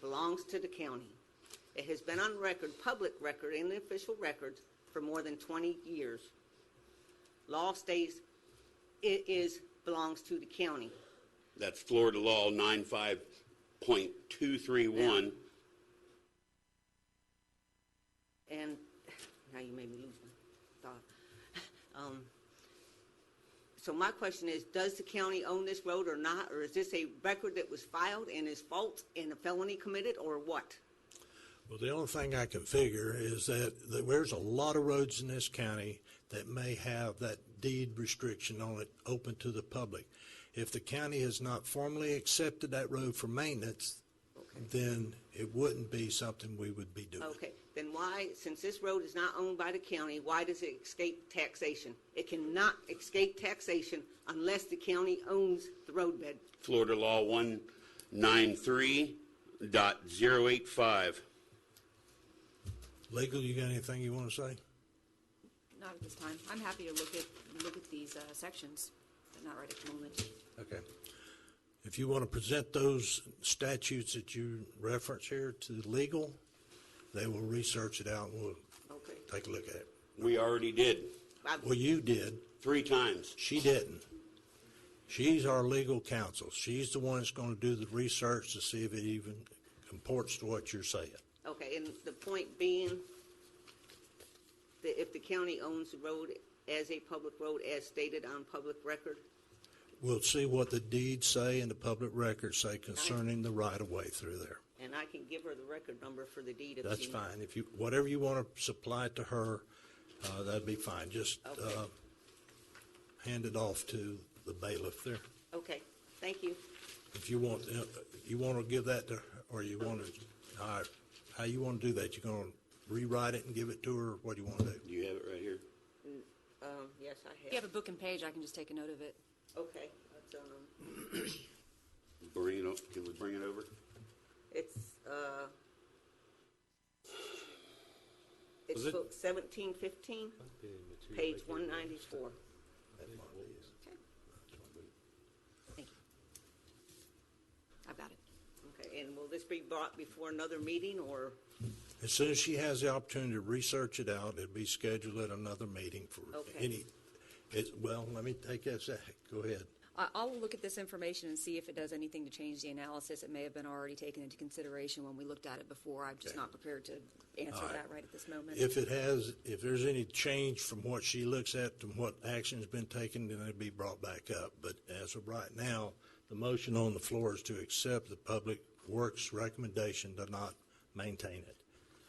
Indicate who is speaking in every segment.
Speaker 1: belongs to the county. It has been on record, public record, and the official records for more than 20 years. Law states it is, belongs to the county.
Speaker 2: That's Florida Law 95.231.
Speaker 1: And now you made me lose my thought. Um, so my question is, does the county own this road or not? Or is this a record that was filed and is false and a felony committed or what?
Speaker 3: Well, the only thing I can figure is that that there's a lot of roads in this county that may have that deed restriction on it open to the public. If the county has not formally accepted that road for maintenance, then it wouldn't be something we would be doing.
Speaker 1: Okay, then why, since this road is not owned by the county, why does it escape taxation? It cannot escape taxation unless the county owns the roadbed.
Speaker 2: Florida Law 193.085.
Speaker 3: Legal, you got anything you want to say?
Speaker 4: Not at this time. I'm happy to look at, look at these uh, sections, but not right at the moment.
Speaker 3: Okay. If you want to present those statutes that you reference here to legal, they will research it out and we'll
Speaker 1: Okay.
Speaker 3: take a look at it.
Speaker 2: We already did,
Speaker 1: I-
Speaker 3: Well, you did.
Speaker 2: three times.
Speaker 3: She didn't. She's our legal counsel. She's the one that's going to do the research to see if it even comports to what you're saying.
Speaker 1: Okay, and the point being that if the county owns the road as a public road as stated on public record,
Speaker 3: We'll see what the deeds say and the public records say concerning the right-of-way through there.
Speaker 1: and I can give her the record number for the deed if
Speaker 3: That's
Speaker 1: she-
Speaker 3: fine. If you, whatever you want to supply to her, uh, that'd be fine. Just
Speaker 1: Okay.
Speaker 3: uh, hand it off to the bailiff there.
Speaker 1: Okay, thank you.
Speaker 3: If you want, uh, you want to give that to, her, or you want to, all right, how you want to do that? You going to rewrite it and give it to her? What do you want to do?
Speaker 2: Do you have it right here?
Speaker 1: Um, yes, I
Speaker 4: If
Speaker 1: have.
Speaker 4: you have a book and page, I can just take a note of it.
Speaker 1: Okay, that's, um,
Speaker 2: Bring it up, can we bring it over?
Speaker 1: it's, uh, it's
Speaker 5: Was it-
Speaker 1: book seventeen fifteen, page one ninety-four.
Speaker 4: Thank you. I've got it.
Speaker 1: Okay, and will this be brought before another meeting or,
Speaker 3: As soon as she has the opportunity to research it out, it'd be scheduled at another meeting for
Speaker 1: Okay.
Speaker 3: any, it, well, let me take that sec, go ahead.
Speaker 4: I, I'll look at this information and see if it does anything to change the analysis. It may have been already taken into consideration when we looked at it before. I'm just not prepared to answer that right at this moment.
Speaker 3: If it has, if there's any change from what she looks at and what action's been taken, then it'd be brought back up. But as of right now, the motion on the floor is to accept the Public Works recommendation to not maintain it.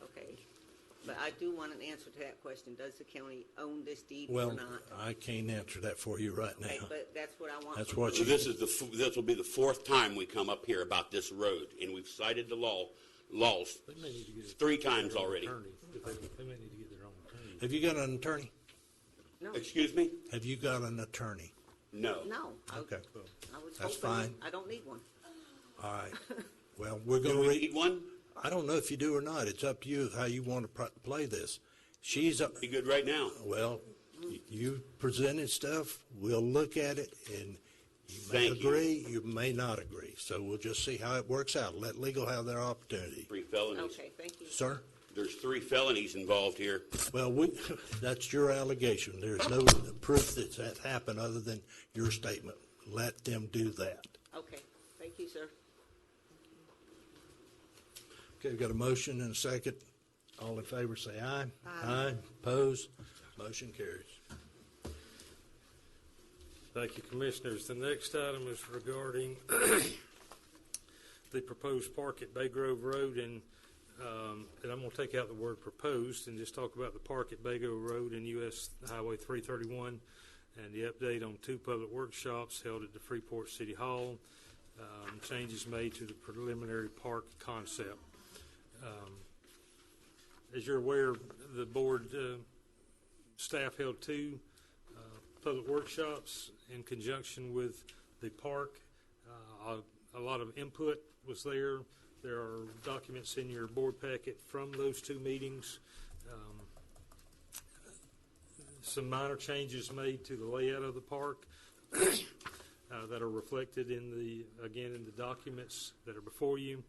Speaker 1: okay? But I do want an answer to that question. Does the county own this deed or
Speaker 3: Well,
Speaker 1: not?
Speaker 3: I can't answer that for you right
Speaker 1: Okay,
Speaker 3: now.
Speaker 1: but that's what I want.
Speaker 3: That's
Speaker 1: from
Speaker 3: what
Speaker 1: her.
Speaker 2: So this is the, f- this will be the fourth time we come up here about this road, and we've cited the law, laws, three times already.
Speaker 5: They may need to get their own attorney.
Speaker 3: Have you got an attorney?
Speaker 2: Excuse me?
Speaker 3: Have you got an attorney?
Speaker 2: No.
Speaker 1: No. I-
Speaker 3: Okay.
Speaker 1: I was
Speaker 3: That's
Speaker 1: hoping-
Speaker 3: fine.
Speaker 1: I don't need one.
Speaker 3: All right. Well, we're going
Speaker 2: Do we
Speaker 3: to read.
Speaker 2: need one?
Speaker 3: I don't know if you do or not. It's up to you how you want to pr- play this. She's, up-
Speaker 2: Be good right now.
Speaker 3: well, y- you presented stuff, we'll look at it, and you may
Speaker 2: Thank you.
Speaker 3: agree, you may not agree. So we'll just see how it works out. Let legal have their opportunity.
Speaker 2: Three felonies.
Speaker 1: Okay, thank you.
Speaker 3: Sir?
Speaker 2: There's three felonies involved here.
Speaker 3: Well, we, that's your allegation. There's no proof that that happened other than your statement. Let them do that.
Speaker 1: Okay, thank you, sir.
Speaker 3: Okay, we've got a motion and a second. All in favor, say aye. Aye. Opposed? Motion carries.
Speaker 5: Thank you, Commissioners. The next item is regarding the proposed park at Bay Grove Road, and, um, and I'm going to take out the word proposed and just talk about the park at Bay Grove Road and US Highway 331, and the update on two public workshops held at the Freeport City Hall, um, changes made to the preliminary park concept. Um, As you're aware, the board uh, staff held two uh, public workshops in conjunction with the park. Uh, A a lot of input was there. There are documents in your board packet from those two meetings. Um, Some minor changes made to the layout of the park uh, that are reflected in the, again, in the documents that are before you.